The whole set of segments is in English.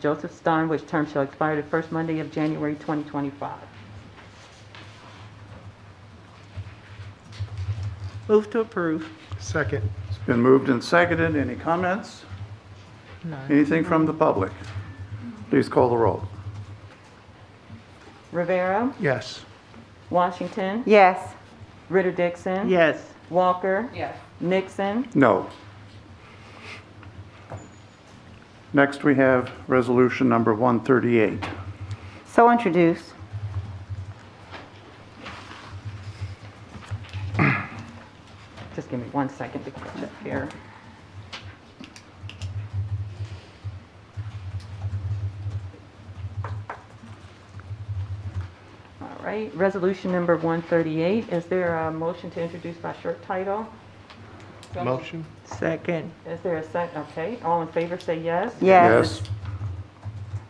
Joseph Stein, which term shall expire the first Monday of January 2025. Move to approve. Second. It's been moved and seconded. Any comments? Anything from the public? Please call the roll. Rivera, Yes. Washington, Yes. Ritter Dixon. Yes. Walker. Nixon. No. Next, we have resolution number 138. So introduced. Just give me one second to catch up here. All right, resolution number 138. Is there a motion to introduce by short title? Motion? Second. Is there a second? Okay, all in favor say yes. Yes.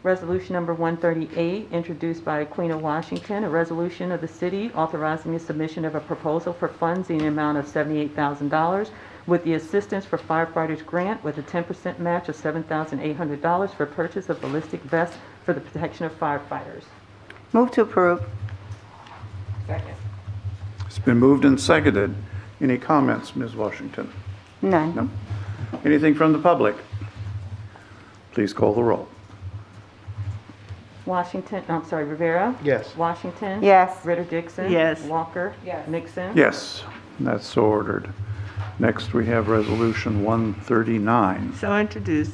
Resolution number 138, introduced by Queen of Washington, a resolution of the city authorizing the submission of a proposal for funds in the amount of $78,000 with the Assistance for Firefighters Grant with a 10% match of $7,800 for purchase of ballistic vests for the protection of firefighters. Move to approve. Second. It's been moved and seconded. Any comments, Ms. Washington? None. Anything from the public? Please call the roll. Washington, I'm sorry, Rivera. Yes. Washington. Yes. Ritter Dixon. Yes. Walker. Yes. Nixon. Yes, that's so ordered. Next, we have resolution 139. So introduced.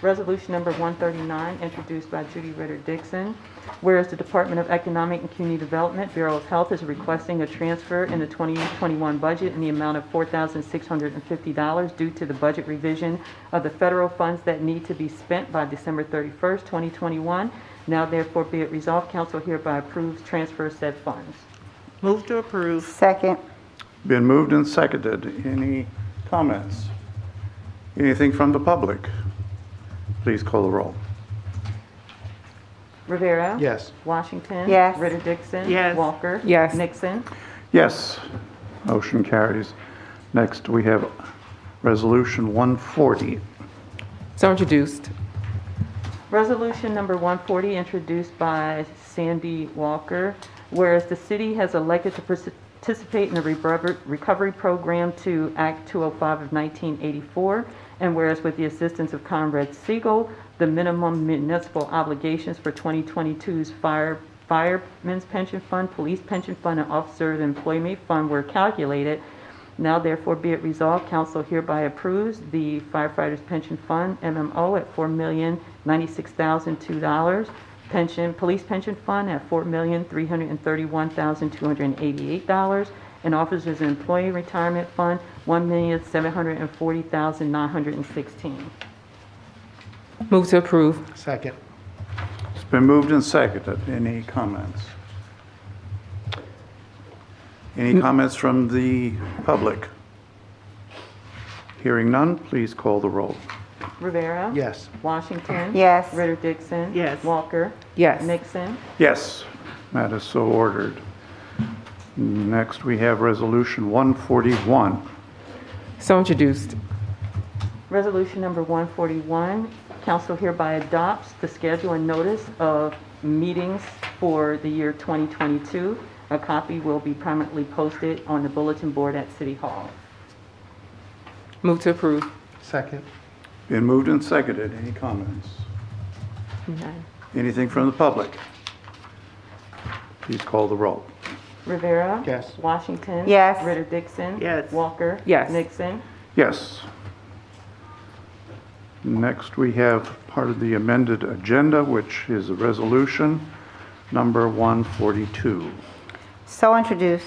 Resolution number 139, introduced by Judy Ritter Dixon. Whereas the Department of Economic and Community Development, Bureau of Health is requesting a transfer in the 2021 budget in the amount of $4,650 due to the budget revision of the federal funds that need to be spent by December 31st, 2021. Now therefore be it resolved, council hereby approves transfer of said funds. Move to approve. Second. Been moved and seconded. Any comments? Anything from the public? Please call the roll. Rivera. Yes. Washington. Yes. Ritter Dixon. Yes. Walker. Yes. Nixon. Yes, motion carries. Next, we have Resolution 140. So introduced. Resolution number 140, introduced by Sandy Walker, whereas the city has elected to participate in the rebrubber- recovery program to Act 205 of 1984, and whereas with the assistance of Conrad Siegel, the minimum municipal obligations for 2022's fire firemen's pension fund, police pension fund, and officers employment fund were calculated, now therefore be it resolved, council hereby approves the firefighters pension fund, MMO, at four million ninety-six thousand two dollars. Pension, police pension fund at four million three hundred and thirty-one thousand two hundred and eighty-eight dollars. And officers and employee retirement fund, one million seven hundred and forty thousand nine hundred and sixteen. Move to approve. Second. It's been moved and seconded. Any comments? Any comments from the public? Hearing none, please call the roll. Rivera. Yes. Washington. Yes. Ritter Dixon. Yes. Walker. Yes. Nixon. Yes, that is so ordered. Next, we have Resolution 141. So introduced. Resolution number 141, council hereby adopts the schedule and notice of meetings for the year 2022. A copy will be permanently posted on the bulletin board at City Hall. Move to approve. Second. Been moved and seconded. Any comments? Anything from the public? Please call the roll. Rivera. Yes. Washington. Yes. Ritter Dixon. Yes. Walker. Yes. Nixon. Yes. Next, we have part of the amended agenda, which is a resolution number 142. So introduced.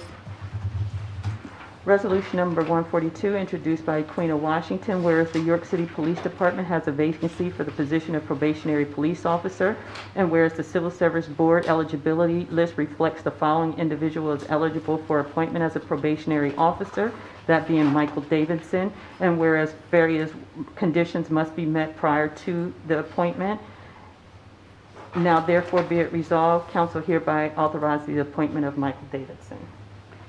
Resolution number 142, introduced by Queen of Washington, whereas the York City Police Department has a vacancy for the position of probationary police officer, and whereas the Civil Service Board eligibility list reflects the following individual as eligible for appointment as a probationary officer, that being Michael Davidson, and whereas various conditions must be met prior to the appointment, now therefore be it resolved, council hereby authorizes the appointment of Michael Davidson.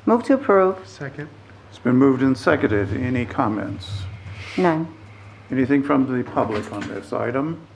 Move to approve. Second. It's been moved and seconded. Any comments? None. Anything from the public on this item?